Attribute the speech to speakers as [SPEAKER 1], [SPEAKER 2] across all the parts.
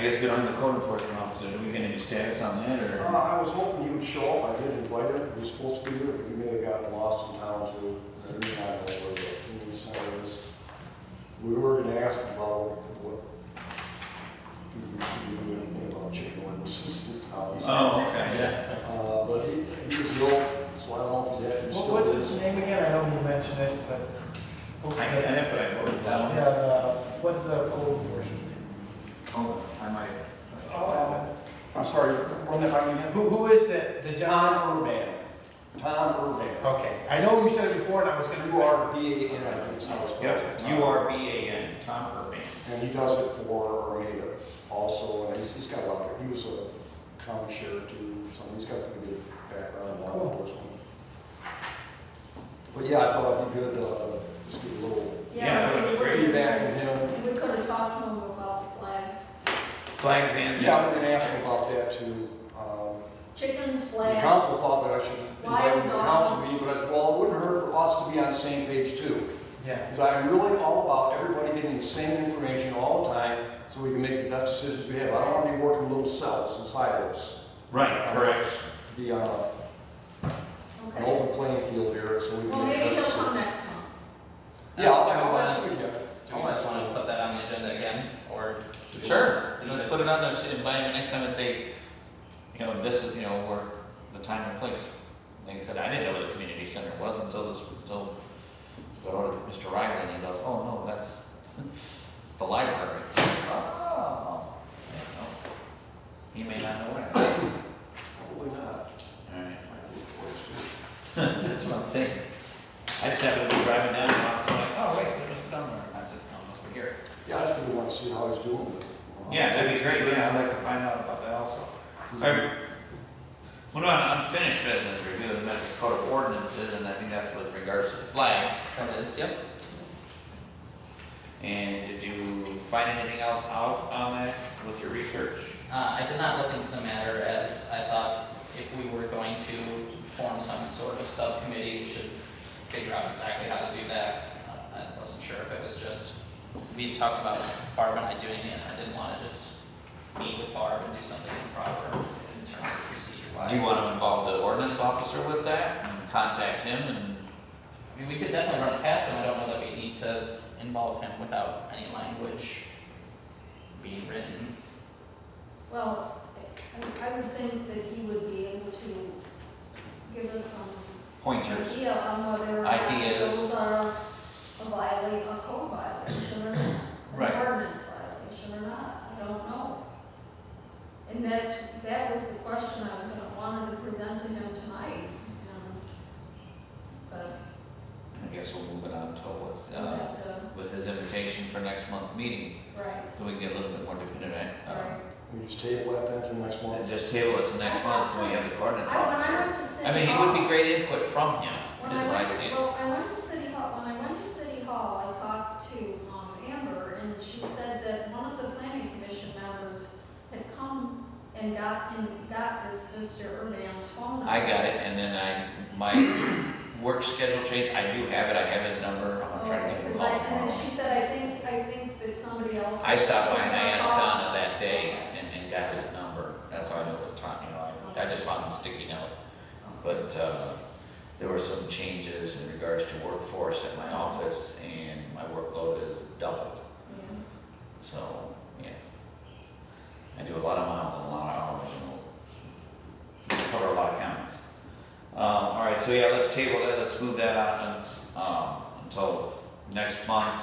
[SPEAKER 1] guess get on the code enforcement officer, are we gonna do status on that,
[SPEAKER 2] Uh,
[SPEAKER 1] or?
[SPEAKER 2] I was hoping he would show up, I did invite him, he was supposed to be here, but he may have gotten lost in town too. I mean, I don't know where the- he was, I was- We were gonna ask him about what, he could do anything about chicken wings in town.
[SPEAKER 1] Oh, okay, yeah.
[SPEAKER 2] Uh, but he, he was ill, so I don't know if he's at, he's
[SPEAKER 3] What-
[SPEAKER 2] still.
[SPEAKER 3] What's his name again? I know you mentioned it, but.
[SPEAKER 1] I had it, but I wrote it
[SPEAKER 3] Yeah,
[SPEAKER 1] down.
[SPEAKER 3] the- what's the code enforcement?
[SPEAKER 1] Oh, I might.
[SPEAKER 2] Oh. I'm sorry, run that by me again.
[SPEAKER 3] Who, who is it? The John?
[SPEAKER 2] Tom Urban, Tom Urban,
[SPEAKER 3] Okay, I know you said it before and I was gonna.
[SPEAKER 2] U R B A N, I think is how it's spelled.
[SPEAKER 1] Yep,
[SPEAKER 2] Tom.
[SPEAKER 1] U R B A N, Tom Urban.
[SPEAKER 2] And he does it for Armada also, and he's, he's got a lot of, he was a county sheriff too, so he's got a pretty good background in law
[SPEAKER 3] Cool.
[SPEAKER 2] enforcement. But yeah, I thought it'd be good, uh, just get a little
[SPEAKER 1] Yeah, that was great.
[SPEAKER 2] feedback from him.
[SPEAKER 4] And we could have talked to him about the flags,
[SPEAKER 1] Flags and.
[SPEAKER 2] Yeah, I'm gonna ask him about that too. Um,
[SPEAKER 4] chickens,
[SPEAKER 2] The
[SPEAKER 4] flags.
[SPEAKER 2] council thought that I should invite him to the council meeting, but I said, well, it wouldn't hurt for us to be on the same page too.
[SPEAKER 3] Yeah,
[SPEAKER 2] Because I'm really all about everybody getting the same information all the time, so we can make the best decisions we have. I don't want to be working little cells and silos.
[SPEAKER 1] Right, correct.
[SPEAKER 2] be on a- an
[SPEAKER 4] Okay.
[SPEAKER 2] open playing field here, so we
[SPEAKER 4] Well,
[SPEAKER 2] can.
[SPEAKER 4] maybe
[SPEAKER 2] make
[SPEAKER 4] he'll
[SPEAKER 2] sure.
[SPEAKER 4] come next time.
[SPEAKER 2] Yeah, I'll,
[SPEAKER 5] Do we
[SPEAKER 2] I'll
[SPEAKER 5] wanna-
[SPEAKER 2] ask him again.
[SPEAKER 5] Do we just want to put that on the agenda again, or?
[SPEAKER 1] Sure, you know, let's put it on there, say, invite him next time and say, you know, this is, you know, we the time and place. Like I said, I didn't know where the community center was until this, until, got ordered to Mr. Riley, and he goes, oh, no, that's, it's the library. Oh. You know, He may not know it.
[SPEAKER 2] Probably not.
[SPEAKER 1] Alright, that's what I'm saying. I just happened to be driving down, and I was like, oh, wait, there's Mr. Dunbar, and I said, no, must be here.
[SPEAKER 2] Yeah, I just really want to see how he's doing. with it.
[SPEAKER 1] Yeah, that'd be great, yeah, I'd like to find out about that also. Alright. What about unfinished business review of the Memphis Code of Ordinances, and I think that's with regards to the flags.
[SPEAKER 5] That is, yep.
[SPEAKER 1] And did you find anything else out on that with your research?
[SPEAKER 5] Uh, I did not look into the matter as I thought if we were going to form some sort of subcommittee, we should figure out exactly how to do that. Uh, I wasn't sure if it was just, we talked about Barb and I doing it, and I didn't want to just meet with Barb and do something improper in terms of procedure wise.
[SPEAKER 1] Do you wanna involve the ordinance officer with that, and contact him, and
[SPEAKER 5] I mean, we could definitely run it past him, I don't know that we need to involve him without any language being written.
[SPEAKER 4] Well, I mean, I would think that he would be able to give us some
[SPEAKER 1] pointers?
[SPEAKER 4] idea on whether or not
[SPEAKER 1] Ideas.
[SPEAKER 4] those are a violation, a code violation or not.
[SPEAKER 1] Right.
[SPEAKER 4] An ordinance violation or not, I don't know. And that's, that was the question I was gonna, wanted to present to him tonight, um, but
[SPEAKER 1] I guess we'll move it on to what's,
[SPEAKER 4] we'll
[SPEAKER 1] uh,
[SPEAKER 4] have to,
[SPEAKER 1] with his invitation for next month's meeting,
[SPEAKER 4] right,
[SPEAKER 1] so we can get a little bit more definitive, uh,
[SPEAKER 4] right.
[SPEAKER 2] We just table that then till next
[SPEAKER 1] And
[SPEAKER 2] month.
[SPEAKER 1] just table it to next month, so we have the coordinates officer. I mean, it
[SPEAKER 4] he
[SPEAKER 1] would be great input from him, is
[SPEAKER 4] When
[SPEAKER 1] what
[SPEAKER 4] I
[SPEAKER 1] I
[SPEAKER 4] went,
[SPEAKER 1] see.
[SPEAKER 4] well, I went to City Hall, when I went to City Hall, I talked to, um, Amber, and she said that one of the planning commission members had come and got, and got this Mr. Urban's phone number.
[SPEAKER 1] I got it, and then I, my work schedule changed, I do have it, I have his number, I'm trying to get him
[SPEAKER 4] Because
[SPEAKER 1] called
[SPEAKER 4] Oh, I, and then
[SPEAKER 1] tomorrow.
[SPEAKER 4] she said, I think, I think that somebody else.
[SPEAKER 1] I stopped by and I asked
[SPEAKER 4] Oh.
[SPEAKER 1] Donna that day and, and got his number, that's how I knew it was Tom, you know, I, I just found him sticky note. But, uh, there were some changes in regards to workforce at my office, and my workload is doubled.
[SPEAKER 4] Yeah.
[SPEAKER 1] So, yeah. I do a lot of miles and a lot of hours and cover a lot of counties. Um, all right, so yeah, let's table that, let's move that out and, um, until next month.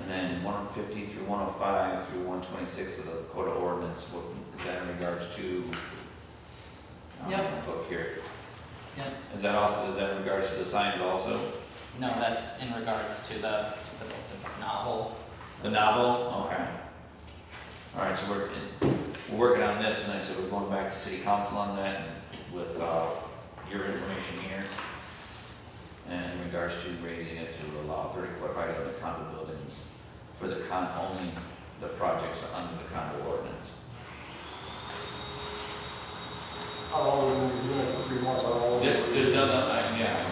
[SPEAKER 1] And then one fifty through one oh five through one twenty-six of the Dakota ordinance, what, is that in regards to? um,
[SPEAKER 5] Yep.
[SPEAKER 1] Book here.
[SPEAKER 5] Yep.
[SPEAKER 1] Is that also, is that in regards to the signs also?
[SPEAKER 5] No, that's in regards to the, the, the novel.
[SPEAKER 1] The novel, okay. All right, so we're, we're working on this, and I said we're going back to city council on that and with, uh, your information here. And in regards to raising it to allow thirty foot height on the condo buildings for the con, only the projects under the condo ordinance.
[SPEAKER 2] How long we been doing it, three months, I don't know.
[SPEAKER 1] There's, there's none, uh, yeah,